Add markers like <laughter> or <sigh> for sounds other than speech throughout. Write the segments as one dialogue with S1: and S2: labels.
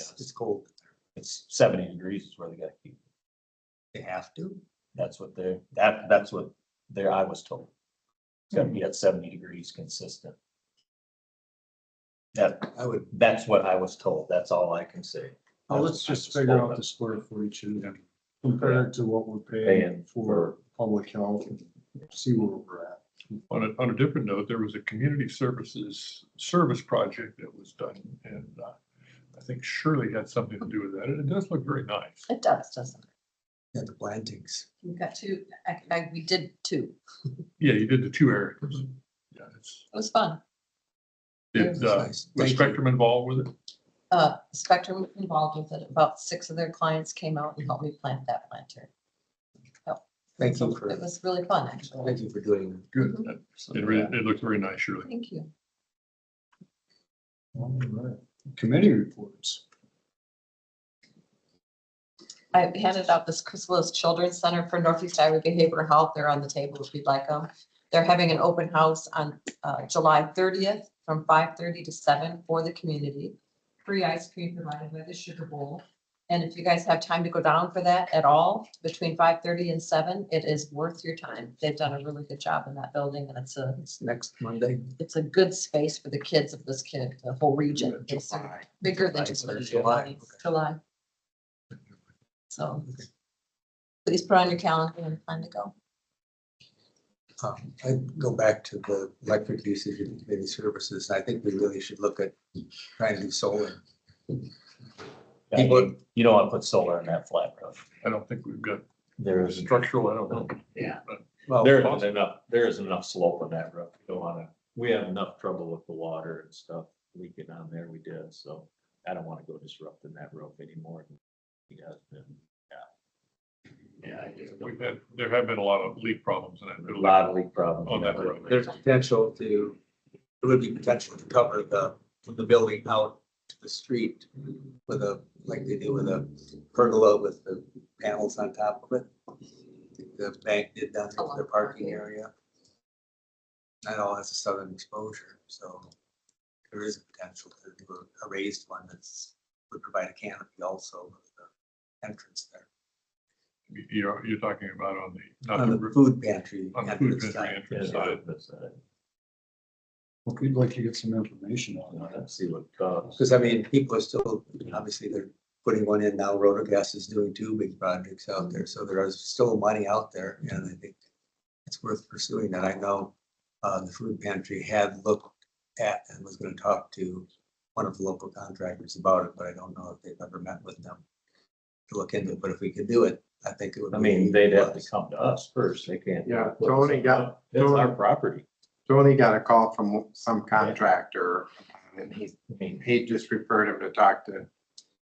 S1: it's cold.
S2: It's seventy degrees is where they gotta keep. it.
S1: They have to.
S2: That's what they're, that, that's what there, I was told. It's gonna be at seventy degrees consistent. That,
S1: I would,
S2: that's what I was told. That's all I can say.
S3: Well, let's just figure out the square footage and compare it to what we're
S2: Paying
S3: paying for
S2: for-
S3: public health and see where we're at.
S4: On a, on a different note, there was a community services service project that was done and uh, I think Shirley had something to do with that. And it does look very nice.
S5: It does, doesn't it?
S1: yeah, the plantings.
S5: We've got two, I, I, we did two.
S4: Yeah, you did the two areas. Yeah, it's,
S5: It was fun.
S4: did, uh,
S1: Nice.
S4: was
S1: Thank you.
S4: Spectrum involved with it?
S5: Uh, Spectrum was involved with it. About six of their clients came out and helped me plant that planter.
S1: Thank
S5: So
S1: you for,
S5: It was really fun,
S1: thank
S5: actually.
S1: you for doing. that.
S4: Good.
S5: Mhm.
S4: It really, it looked very nice, Shirley.
S5: Thank you.
S3: All right. Committee reports.
S5: I handed out this Chris Willis Children's Center for Northeast Iowa Behavioral Health. They're on the table if you'd like them. They're having an open house on uh, July thirtieth from five thirty to seven for the community. Free ice cream provided by the Sugar Bowl. And if you guys have time to go down for that at all, between five thirty and seven, it is worth your time. They've done a really good job in that building and it's a,
S1: It's next Monday.
S5: it's a good space for the kids of this kid, the whole region. It's
S1: July.
S5: bigger
S1: July
S5: than just
S1: third,
S5: Livingston
S1: July,
S5: County,
S1: okay.
S5: July. So. Please put on your calendar and plan to go.
S1: Um, I go back to the electric usage and community services. I think we really should look at trying to do solar.
S2: Yeah, You you don't wanna put solar in that flat roof.
S4: I don't think we've got
S2: There is,
S4: structural, I don't know.
S1: Well,
S2: there isn't enough, there isn't enough slope on that roof. You don't wanna, we have enough trouble with the water and stuff leaking on there. We did, so I don't wanna go disrupting that roof anymore. than He has been.
S4: We've had, there have been a lot of leak problems in that.
S2: A
S4: building.
S2: lot of leak problems.
S4: On Oh, that roof.
S1: there's potential to, there would be potential to cover the, the building out to the street with a, like they do with a pergola with the panels on top of it. The bank did that for their parking area. That all has a southern exposure, so there is potential to do a- a raised one that's, would provide a canopy also with the entrance there.
S4: You- You're, you're talking about on the, not
S1: On
S4: the
S1: the
S4: roof,
S1: food pantry.
S4: on the food
S1: entrance
S4: pantry
S1: side.
S2: Yeah,
S4: entrance side.
S2: that's, uh,
S3: Look, we'd like to get some information on that.
S2: Let's see what comes.
S1: Because I mean, people are still, obviously, they're putting one in now, Rotogas is doing two big projects out there, so there is still money out there, and I think it's worth pursuing that. I know uh, the food pantry had looked at and was gonna talk to one of the local contractors about it, but I don't know if they've ever met with them to look into it, but if we could do it, I think it would.
S2: I
S1: be
S2: mean, they'd have to
S1: plus.
S2: come to us first. They can't.
S6: Yeah, Tony got-
S2: It's our property.
S6: Tony got a call from some contractor and he,
S2: I mean,
S6: he just referred him to talk to.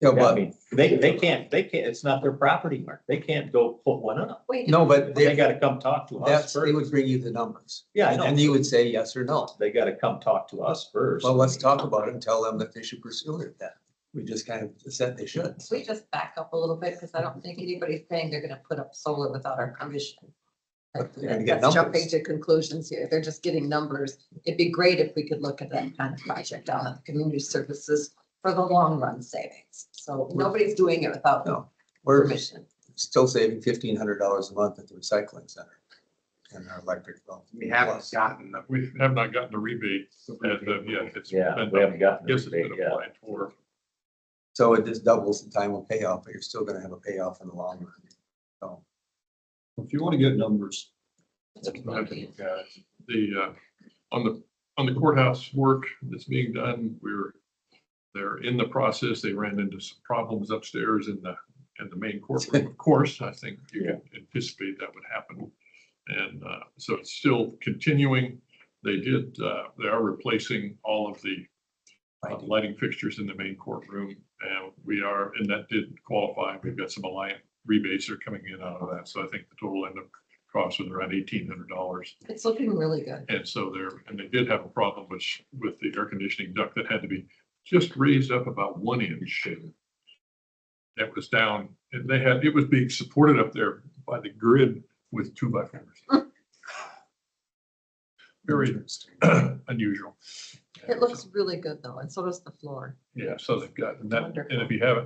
S1: Yeah,
S2: I
S1: but,
S2: mean, they, they can't, they can't, it's not their property, Mark. They can't go put one up.
S5: Wait,
S1: no, but
S2: They
S1: they,
S2: gotta come talk to us
S1: that's, they would
S2: first.
S1: bring you the numbers.
S2: Yeah, I
S1: And then
S2: know.
S1: you would say yes or no.
S2: They gotta come talk to us first.
S1: Well, let's talk about it and tell them that they should pursue it then. We just kind of said they should.
S5: we just back up a little bit because I don't think anybody's saying they're gonna put up solar without our permission.
S1: But they're gonna get
S5: That's jumping
S1: numbers.
S5: to conclusions here. They're just getting numbers. It'd be great if we could look at that kind of project on the community services for the long run savings. So nobody's doing it without
S1: No. We're
S5: permission.
S1: still saving fifteen hundred dollars a month at the recycling center. And our electric bill.
S6: We haven't gotten the
S4: We have not gotten a rebate as of yet. It's
S2: Yeah,
S4: been-
S2: we haven't gotten. the
S4: Yes, it's been
S2: rebate yet.
S4: applied for.
S1: So it just doubles the time of payoff, but you're still gonna have a payoff in the long run. So
S3: If you want to get numbers,
S4: Yeah, The, uh, on the, on the courthouse work that's being done, we're, they're in the process. They ran into some problems upstairs in the, in the main courtroom, of course. I think you can anticipate that would happen. And uh, so it's still continuing. They did, uh, they are replacing all of the uh,
S1: I do.
S4: lighting fixtures in the main courtroom. And we are, and that did qualify. We've got some Alliant rebates that are coming in out of that. So I think the total end up cost was around eighteen hundred dollars.
S5: It's looking really good.
S4: And so there, and they did have a problem with, with the air conditioning duct that had to be just raised up about one inch. That was down, and they had, it was being supported up there by the grid with two by
S5: <laughs>
S4: fours. Very <clears throat> unusual.
S5: It looks really good though, and so does the floor.
S4: Yeah, so they've got, and that, and
S5: Wonderful.
S4: if you haven't